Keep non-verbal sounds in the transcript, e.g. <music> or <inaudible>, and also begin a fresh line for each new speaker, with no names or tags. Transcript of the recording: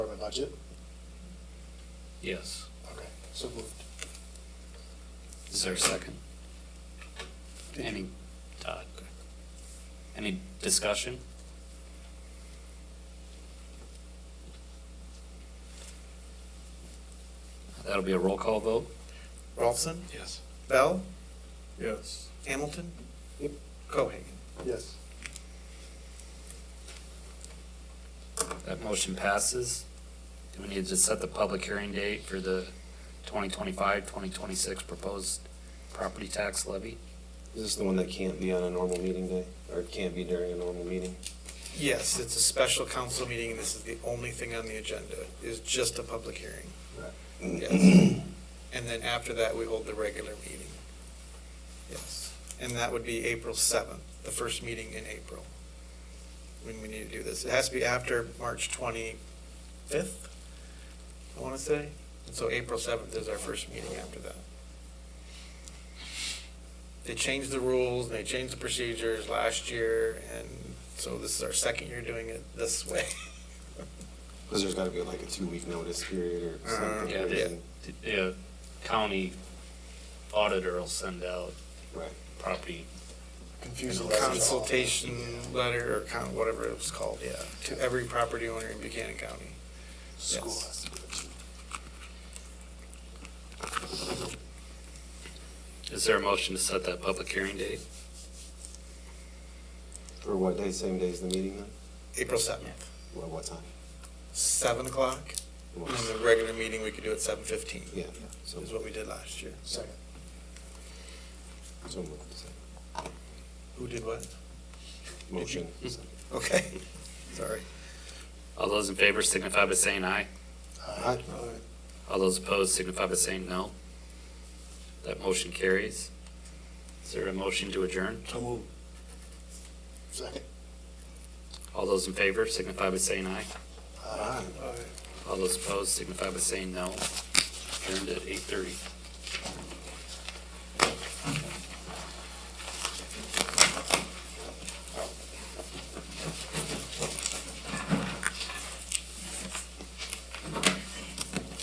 budget?
Yes.
Okay, so moved.
Is there a second? Any, Todd? Any discussion? That'll be a roll call vote?
Ralston,
Yes.
Bell,
Yes.
Hamilton,
Yep.
Cohagen.
Yes.
That motion passes. Do we need to set the public hearing date for the 2025, 2026 proposed property tax levy?
Is this the one that can't be on a normal meeting day, or can't be during a normal meeting?
Yes, it's a special council meeting, and this is the only thing on the agenda, is just a public hearing. Yes. And then after that, we hold the regular meeting. Yes, and that would be April seventh, the first meeting in April, when we need to do this. It has to be after March twenty-fifth, I want to say. And so April seventh is our first meeting after that. They changed the rules, and they changed the procedures last year, and so this is our second year doing it this way.
Because there's gotta be like a two-week notice period or
Uh,
something.
Yeah, the,
crazy.
the uh, county auditor will send out
Right.
property
Confusing.
Consultation letter or con, whatever it was called, yeah, to every property owner in Buchanan County.
School
Yes.
has to do it.
Is there a motion to set that public hearing date?
For what day, same day as the meeting then?
April seventh,
What, what time?
seven o'clock, and
What-
then the regular meeting, we could do at seven fifteen.
Yeah, so,
Is what we did last year.
Second.
so moved, so,
Who did what?
motion. so.
Okay, <laughs> sorry.
All those in favor signify by saying aye.
Aye.
All those opposed signify by saying no. That motion carries. Is there a motion to adjourn?
So moved. Second.
All those in favor signify by saying aye.
Aye.
Aye.
All those opposed signify by saying no. Adjourned at eight thirty.